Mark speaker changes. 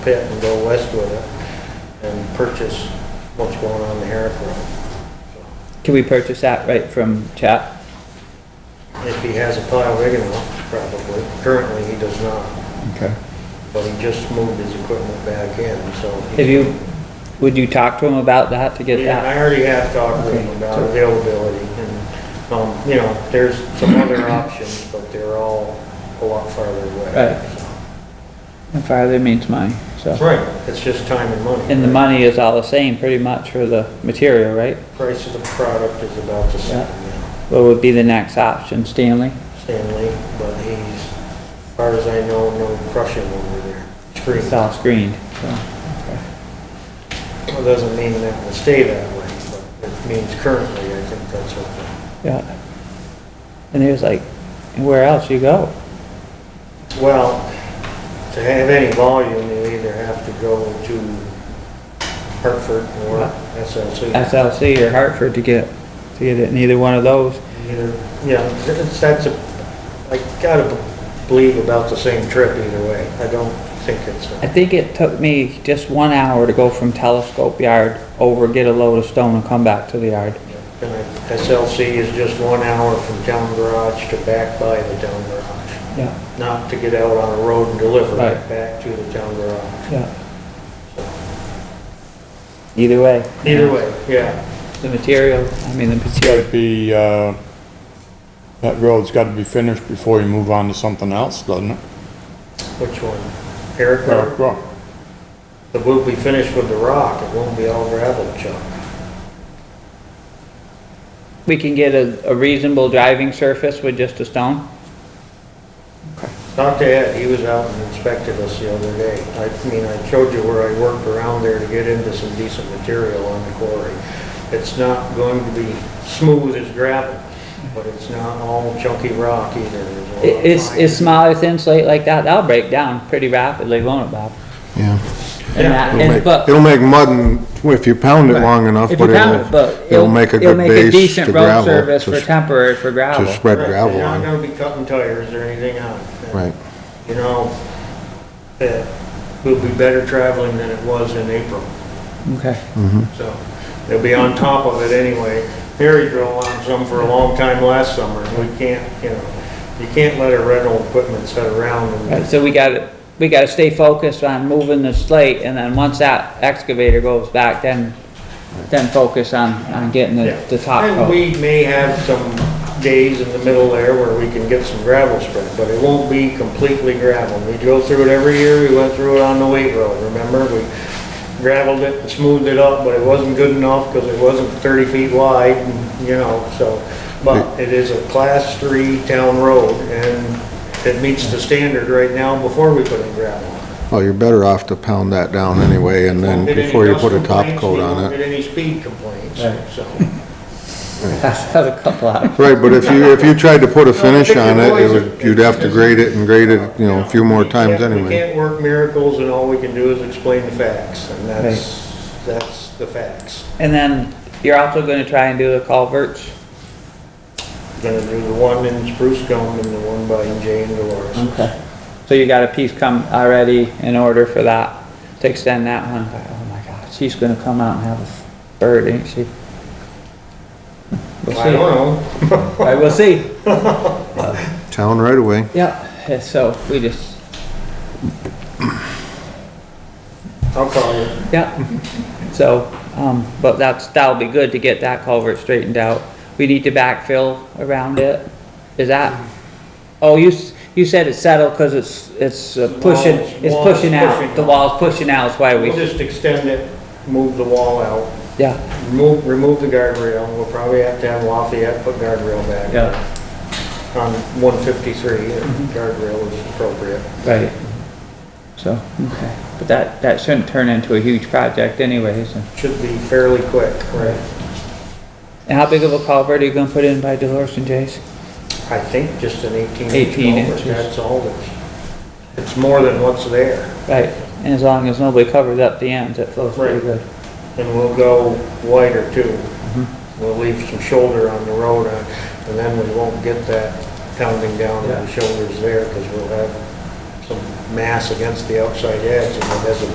Speaker 1: pit and go west with it and purchase what's going on the Herrick Road.
Speaker 2: Can we purchase that right from chat?
Speaker 1: If he has a pile big enough, probably. Currently, he does not,
Speaker 2: Okay.
Speaker 1: but he just moved his equipment back in, so. he's-
Speaker 2: Have you, would you talk to him about that to get
Speaker 1: Yeah, I
Speaker 2: that?
Speaker 1: already have talked with him
Speaker 2: Okay.
Speaker 1: about availability and, um, you know, there's some other options, but they're all a lot farther away.
Speaker 2: Right. And farther means money, so.
Speaker 1: Right, it's just time and money.
Speaker 2: And the money is all the same pretty much for the material, right?
Speaker 1: Price of the product is about the same, yeah.
Speaker 2: What would be the next option, Stanley?
Speaker 1: Stanley, but he's, as far as I know, no crushing over there. Screen,
Speaker 2: It's all screened, so.
Speaker 1: well, doesn't mean that will stay that way, but it means currently, I think that's what.
Speaker 2: Yeah. And he was like, where else you go?
Speaker 1: the- Well, to have any volume, you either have to go to Hartford or SLC.
Speaker 2: SLC or Hartford to get, to get it, neither one of those.
Speaker 1: Either, yeah, it's, that's a, I gotta believe about the same trip either way. I don't think it's,
Speaker 2: I
Speaker 1: a-
Speaker 2: think it took me just one hour to go from Telescope Yard over, get a load of stone and come back to the yard.
Speaker 1: and I- SLC is just one hour from town garage to back by the town garage.
Speaker 2: Yeah,
Speaker 1: Not to get out on a road and deliver it
Speaker 2: Right.
Speaker 1: back to the town garage.
Speaker 2: yeah. Either way.
Speaker 1: Either way, yeah.
Speaker 2: The material, I mean, the material,
Speaker 3: Gotta be, uh, that road's gotta be finished before you move on to something else, doesn't it?
Speaker 1: Which one? Eric,
Speaker 3: Eric
Speaker 1: or-
Speaker 3: Rock.
Speaker 1: the we'll be finished with the rock. It won't be all gravel chunk.
Speaker 2: we can get a, a reasonable driving surface with just a stone?
Speaker 1: Talked to Ed, he was out and inspected us the other day. I mean, I showed you where I worked around there to get into some decent material on the quarry. It's not going to be smooth as gravel, but it's not all chunky rock either. There's a lot
Speaker 2: I-
Speaker 1: of
Speaker 2: Is,
Speaker 1: fine-
Speaker 2: is smaller thin slate like that, that'll break down pretty rapidly, won't it, Bob?
Speaker 4: Yeah.
Speaker 1: Yeah.
Speaker 2: And that,
Speaker 4: It'll
Speaker 2: and,
Speaker 4: make,
Speaker 2: but.
Speaker 4: it'll make mud and, if you pound it long enough,
Speaker 2: If
Speaker 4: but
Speaker 2: you pound it,
Speaker 4: it'll,
Speaker 2: but
Speaker 4: it'll make a good base
Speaker 2: decent
Speaker 4: to
Speaker 2: road
Speaker 4: gravel.
Speaker 2: Service
Speaker 4: to
Speaker 2: for
Speaker 4: s-
Speaker 2: temporary, for gravel.
Speaker 4: To spread
Speaker 1: Right,
Speaker 4: gravel
Speaker 1: They're not
Speaker 4: on,
Speaker 1: gonna be cutting tires or anything on it.
Speaker 4: right.
Speaker 1: You know, it will be better traveling than it was in April.
Speaker 2: Okay.
Speaker 1: So they'll be on top of it anyway. Harry drove on some for a long time last summer. and We can't, you know, you can't let our rental equipment sit around
Speaker 2: Right,
Speaker 1: and,
Speaker 2: so we gotta, we gotta stay focused on moving the slate, and then once that excavator goes back, then, then focus on, on getting the, the top
Speaker 1: And
Speaker 2: coat.
Speaker 1: we may have some days in the middle there where we can get some gravel spread, but it won't be completely gravel. We go through it every year. We went through it on the weight road, remember? We gravelled it and smoothed it up, but it wasn't good enough because it wasn't thirty feet wide, and, you know, so. But it is a class three town road and it meets the standard right now before we put in gravel.
Speaker 4: Well, you're better off to pound that down
Speaker 2: Mm-hmm.
Speaker 4: anyway and then
Speaker 1: Won't get any
Speaker 4: before you
Speaker 1: dust
Speaker 4: put a top
Speaker 1: complaints,
Speaker 4: coat
Speaker 1: we won't
Speaker 4: on it.
Speaker 1: Get any speed complaints, so.
Speaker 2: That's a couple of,
Speaker 4: Right, but if you, if you tried to put a finish
Speaker 1: pick your
Speaker 4: on it, it
Speaker 1: poison.
Speaker 4: would, you'd have to grade it and grade it, you know, a few more
Speaker 1: We
Speaker 4: times
Speaker 1: can't- We
Speaker 4: anyway.
Speaker 1: can't work miracles and all we can do is explain the facts and that's, that's the facts.
Speaker 2: and then you're also gonna try and do the culverts,
Speaker 1: Gonna do the one in Spruce Gum and the one by Jay and Dolores.
Speaker 2: okay, so you got a piece come already in order for that, to extend that one, But, oh my god, she's gonna come out and have a bird, ain't she? We'll
Speaker 1: I
Speaker 2: see, All
Speaker 1: don't know.
Speaker 2: right, we'll see,
Speaker 4: Town right away.
Speaker 2: yeah, so we just,
Speaker 1: I'll call you.
Speaker 2: Yeah, so, um, but that's, that'll be good to get that culvert straightened out. We need to backfill around it. Is that, oh, you, s- you said it's settled because it's, it's uh, pushing,
Speaker 1: Wall's-
Speaker 2: it's
Speaker 1: wall's
Speaker 2: pushing out.
Speaker 1: pushing.
Speaker 2: The wall's pushing out, that's why we,
Speaker 1: We'll just extend it, move the wall out,
Speaker 2: yeah,
Speaker 1: remove, remove the guardrail. We'll probably have to have Lafayette put guardrail back.
Speaker 2: yeah, Mm-hmm.
Speaker 1: On one fifty-three, guardrail is appropriate.
Speaker 2: right. So, okay, but that, that shouldn't turn into a huge project anyways. And
Speaker 1: Should be fairly quick, right?
Speaker 2: and how big of a culvert are you gonna put in by Dolores and Jay's?
Speaker 1: I think just an eighteen inch
Speaker 2: 18
Speaker 1: culvert,
Speaker 2: inches.
Speaker 1: that's all that's, it's more than what's there.
Speaker 2: Right, and as long as nobody covers up the ends, it flows pretty
Speaker 1: Right.
Speaker 2: good.
Speaker 1: And we'll go wider too.
Speaker 2: Mm-hmm.
Speaker 1: We'll leave some shoulder on the road uh, and then we won't get that pounding down on the
Speaker 2: Yeah.
Speaker 1: shoulders there because we'll have some mass against the outside edge and it doesn't